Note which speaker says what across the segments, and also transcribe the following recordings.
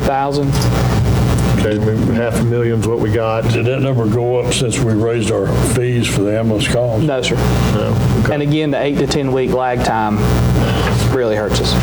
Speaker 1: 3,000.
Speaker 2: Okay, we- half a million's what we got.
Speaker 3: Did that number go up since we raised our fees for the ambulance calls?
Speaker 1: No, sir. And again, the eight to 10 week lag time really hurts us.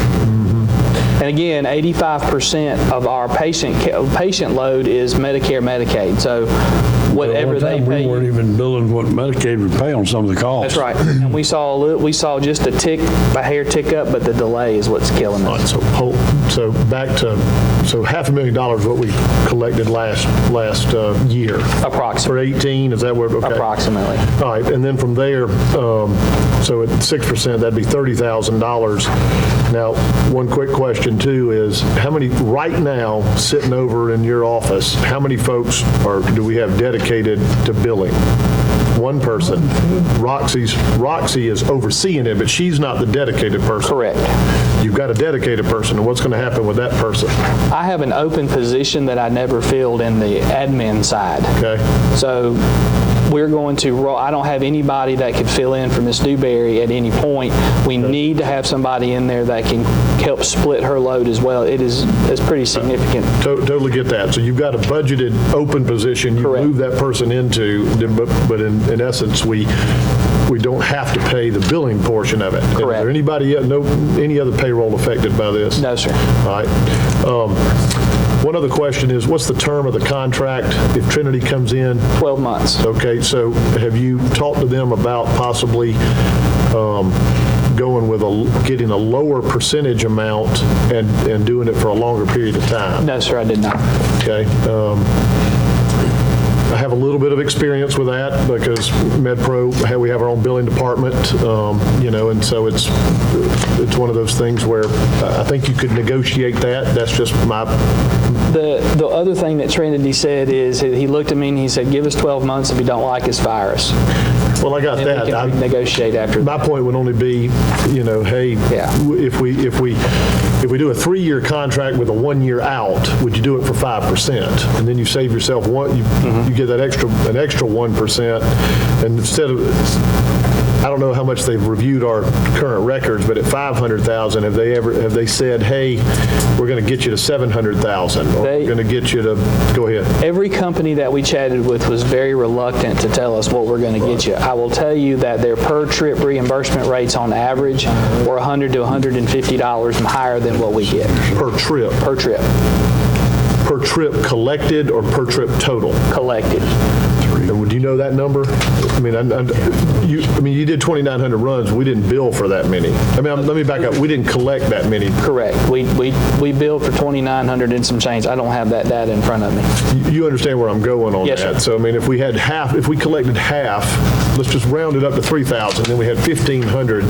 Speaker 1: And again, 85% of our patient, ca- patient load is Medicare, Medicaid. So
Speaker 3: At one
Speaker 1: whatever they
Speaker 3: time,
Speaker 1: pay.
Speaker 3: We weren't even billing what Medicaid would pay on some of the calls.
Speaker 1: That's right. And we saw, a little, we saw just a tick, a hair tick up, but the delay is what's killing
Speaker 2: All
Speaker 1: us.
Speaker 2: right, so, hold- so back to, so half a million dollars what we collected last, last uh, year. For
Speaker 1: Approximately,
Speaker 2: 18, is that where, okay.
Speaker 1: approximately.
Speaker 2: All right, and then from there, um, so at 6%, that'd be $30,000. Now, one quick question too is, how many, right now, sitting over in your office, how many folks are, do we have dedicated to billing? One person. Roxy's, Roxy is overseeing it, but she's not the dedicated person.
Speaker 1: Correct.
Speaker 2: You've got a dedicated person, and what's going to happen with that person?
Speaker 1: I have an open position that I never filled in the admin side.
Speaker 2: Okay?
Speaker 1: So we're going to, roll. I don't have anybody that could fill in for Ms. Dewberry at any point. We need to have somebody in there that can help split her load as well. It is, it's pretty significant.
Speaker 2: To- Totally get that. So you've got a budgeted open position you
Speaker 1: Correct.
Speaker 2: move that person into, then- but but in in essence, we, we don't have to pay the billing portion of it. Is
Speaker 1: Correct.
Speaker 2: there anybody, uh, no, any other payroll affected by this?
Speaker 1: No, sir.
Speaker 2: All right. Um, One other question is, what's the term of the contract if Trinity comes in?
Speaker 1: 12 months.
Speaker 2: Okay, so have you talked to them about possibly um, going with a, getting a lower percentage amount and and doing it for a longer period of time?
Speaker 1: No, sir, I did not.
Speaker 2: Okay. um, I have a little bit of experience with that because MedPro, ha- we have our own billing department, um, you know, and so it's, it's one of those things where I I think you could negotiate that. That's just my,
Speaker 1: The, the other thing that Trinity said is, he looked at me and he said, give us 12 months. If you don't like us, fire us.
Speaker 2: well, I got
Speaker 1: And
Speaker 2: that.
Speaker 1: we
Speaker 2: I-
Speaker 1: can negotiate after.
Speaker 2: My point would only be, you know, hey,
Speaker 1: Yeah.
Speaker 2: w- if we, if we, if we do a three-year contract with a one-year out, would you do it for 5%? And then you save yourself one, you,
Speaker 1: Mm-hmm.
Speaker 2: you get that extra, an extra 1%, and instead of, I don't know how much they've reviewed our current records, but at 500,000, have they ever, have they said, hey, we're going to get you to 700,000? Or
Speaker 1: They-
Speaker 2: we're going to get you to, go ahead.
Speaker 1: Every company that we chatted with was very reluctant to tell us what we're going to get you. I will tell you that their per-trip reimbursement rates on average were 100 to 150 dollars higher than what we get
Speaker 2: Per trip,
Speaker 1: per trip
Speaker 2: per trip collected or per trip total?
Speaker 1: collected.
Speaker 2: And Would you know that number? I mean, I, I- you, I mean, you did 2,900 runs, we didn't bill for that many. I mean, I'm- let me back up, we didn't collect that many.
Speaker 1: Correct. We we we billed for 2,900 and some change. I don't have that data in front of me.
Speaker 2: You- You understand where I'm going on that?
Speaker 1: Yes, sir.
Speaker 2: So, I mean, if we had half, if we collected half, let's just round it up to 3,000, then we had 1,500,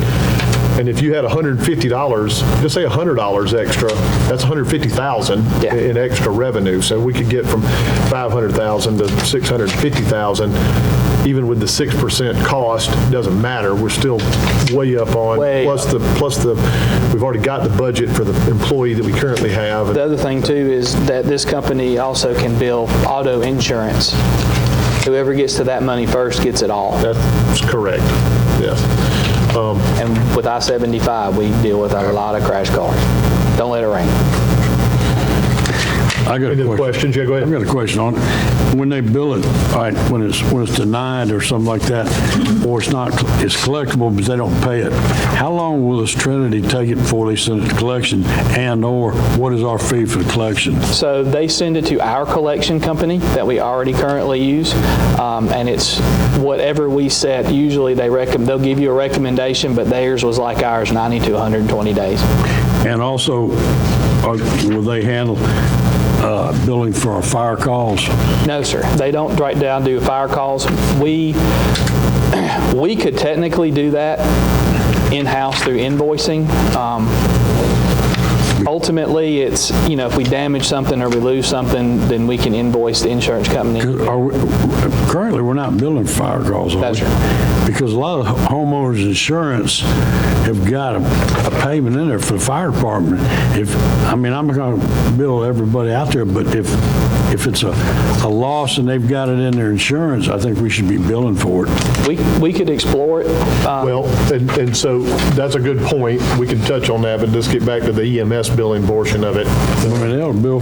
Speaker 2: and if you had $150, just say $100 extra, that's 150,000
Speaker 1: Yeah.
Speaker 2: in extra revenue. So we could get from 500,000 to 650,000, even with the 6% cost, doesn't matter, we're still way up on.
Speaker 1: Way
Speaker 2: Plus the, plus the, we've already got the budget for the employee that we currently have.
Speaker 1: The other thing too is that this company also can bill auto insurance. Whoever gets to that money first gets it all.
Speaker 2: That's correct, yes. Um,
Speaker 1: And with I-75, we deal with a lot of crash cars. Don't let it rain.
Speaker 3: I got
Speaker 2: Any
Speaker 3: a
Speaker 2: other
Speaker 3: question.
Speaker 2: questions? Yeah, go
Speaker 3: I've
Speaker 2: ahead.
Speaker 3: got a question on, it. when they bill it, all right, when it's, when it's denied or something like that, or it's not, it's collectible, but they don't pay it, how long will this Trinity take it before they send it to collection? And/or what is our fee for the collection?
Speaker 1: So they send it to our collection company that we already currently use, um, and it's whatever we set. Usually they recommend, they'll give you a recommendation, but theirs was like ours, 90 to 120 days.
Speaker 3: And also, are- will they handle uh, billing for our fire calls?
Speaker 1: No, sir. They don't write down, do fire calls. We, we could technically do that in-house through invoicing. Um, Ultimately, it's, you know, if we damage something or we lose something, then we can invoice the insurance company.
Speaker 3: Are we- Currently, we're not billing fire calls, are we?
Speaker 1: That's
Speaker 3: Because a lot of homeowners' insurance have got a a payment in there for the fire department. If, I mean, I'm going to bill everybody out there, but if, if it's a a loss and they've got it in their insurance, I think we should be billing for it.
Speaker 1: We, we could explore it. Um,
Speaker 2: Well, and, and so that's a good point. We can touch on that, but let's get back to the EMS E billing portion of it.
Speaker 3: I mean, they'll bill